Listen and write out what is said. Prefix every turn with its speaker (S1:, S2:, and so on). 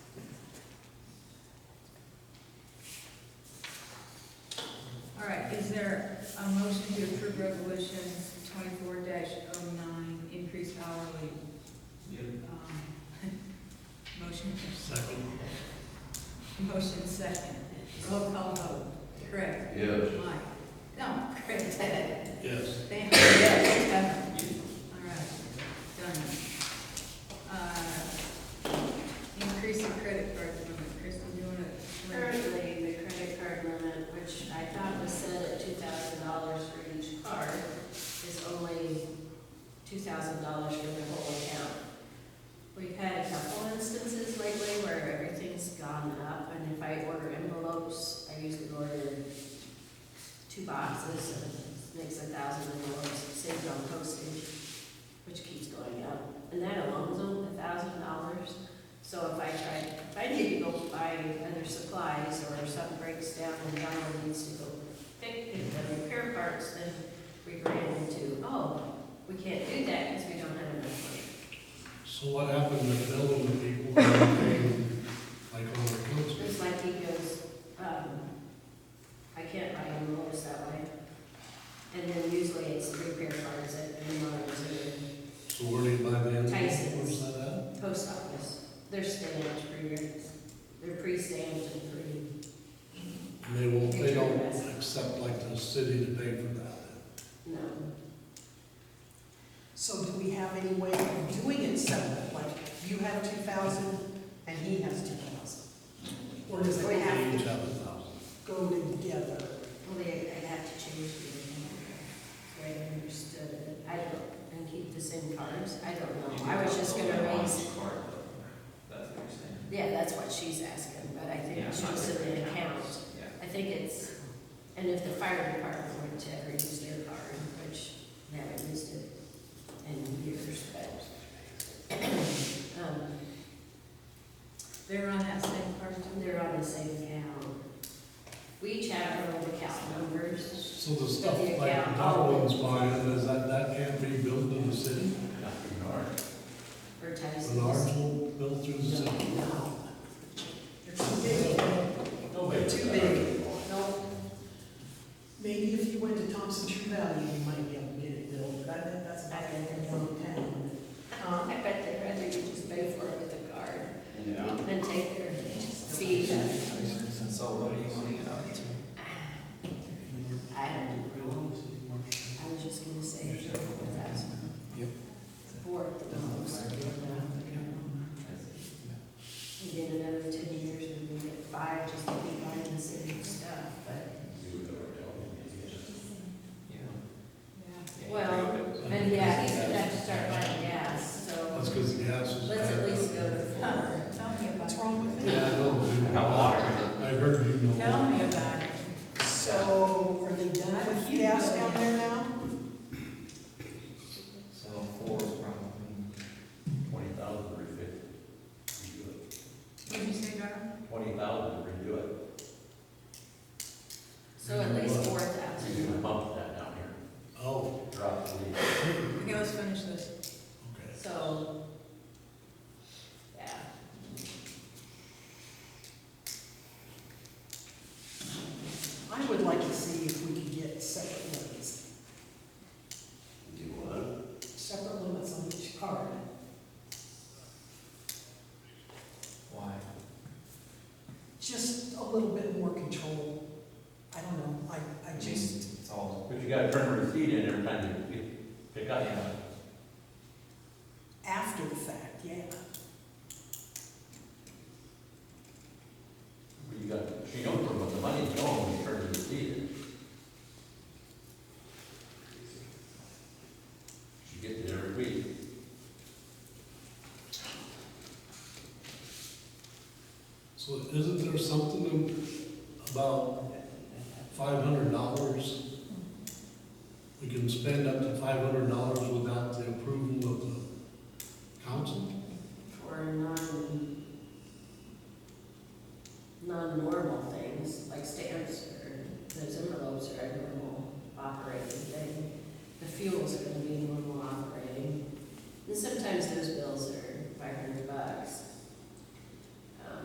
S1: Is there a motion to approve resolution twenty-four 9 increased hourly? um, Motion,
S2: Second.
S1: motion second. Roll call vote. Craig?
S3: Yes.
S1: Mike? No, Craig, Ted?
S2: Yes.
S1: Sam? Yes. Kevin? All right, done. Uh, Increase the credit card limit. Kristen, do you want to?
S4: Currently, the credit card limit, which I thought was set at two thousand dollars for each card, is only two thousand dollars for the whole account. We've had a couple instances lately where everything's gone up, and if I order envelopes, I usually order two boxes, and it makes a thousand envelopes, saved on postage, which keeps going up. And that alone's only a thousand dollars. So if I try, if I need to go buy other supplies or if something breaks down and Donald needs to go pick the repair parts, then we ran into, oh, we can't do that because we don't have enough money.
S2: So what happened to billing the people who were paying, like, over
S4: It's like he goes, um, I can't buy envelopes that way. And then usually it's the repair parts at Menards or
S2: So where do you buy the envelope?
S4: Tyson's.
S2: Where's that at?
S4: the post office. They're stamped, pre- they're pre-stamped and pre.
S2: And they won't, they don't accept like the city to pay for that.
S4: No.
S5: So do we have any way of doing it separate, like you have two thousand and he has two thousand? Or does
S4: We
S5: it
S4: have-
S2: They each have a thousand.
S5: go together?
S4: Well, they, I'd have to change the account, so I understood it. I don't, and keep the same cards, I don't know. I was just gonna raise,
S3: That's what you're
S4: yeah, that's what she's asking, but I think
S3: Yeah,
S4: it's
S3: not
S4: just
S3: the
S4: an
S3: account.
S4: account.
S3: saying.
S4: I think it's, and if the fire department were to ever use their card, which they haven't used it in years, but. um,
S1: They're on that same card, too?
S4: They're on the same account. We each have our own account numbers.
S2: So the stuff like Darwin's buying, is that, that can't be billed to the city?
S4: Or
S2: The
S4: Tyson's.
S2: large will bill through the city?
S5: No. They're too big. They're too big.
S4: No,
S5: Maybe if you went to Thompson True Value, you might be able to get it billed, but I think that's back in their hometown.
S4: I bet they'd rather you just pay for it with a card than take their fee.
S3: So Oh, what are you wanting it out to?
S4: I don't know. I was just gonna say a couple of thousand.
S3: Yep.
S4: Four dollars. And then another ten years, and we get five, just to be buying the same stuff, but,
S3: Yeah.
S4: well, and yeah, he's gonna have to start buying gas, so
S2: That's because the gas is.
S4: let's at least go to
S1: Huh,
S4: four.
S1: Tell me about
S5: What's
S1: it.
S5: wrong with
S2: Yeah, I
S5: that?
S2: don't know. I heard you know.
S1: Tell me about it.
S5: So are they done with gas down there now?
S3: So four is probably.
S6: Twenty thousand, redo
S1: What'd you say, Darrell?
S6: it. Twenty thousand, redo it.
S4: So at least four thousand.
S6: You're gonna bump that down here,
S2: Oh,
S6: drop the lead.
S1: Okay, let's finish this.
S2: okay.
S4: So, yeah.
S5: I would like to see if we could get separate limits,
S6: Do what?
S5: separate limits on each card.
S3: Why?
S5: Just a little bit more control. I don't know, I, I
S6: Mm-hmm.
S5: just,
S3: It's all.
S6: But you gotta turn a receipt in every time you pick- pick up.
S3: Yeah.
S5: after the fact, yeah.
S6: But You got, you don't put the money, you don't, you turn the receipt in. You get it every week.
S2: So isn't there something about five hundred dollars? We can spend up to five hundred dollars without the approval of the council?
S4: For non, non-normal things, like stamps or those envelopes are a normal operating thing. The fuels are gonna be normal operating. And sometimes those bills are five hundred bucks. Um,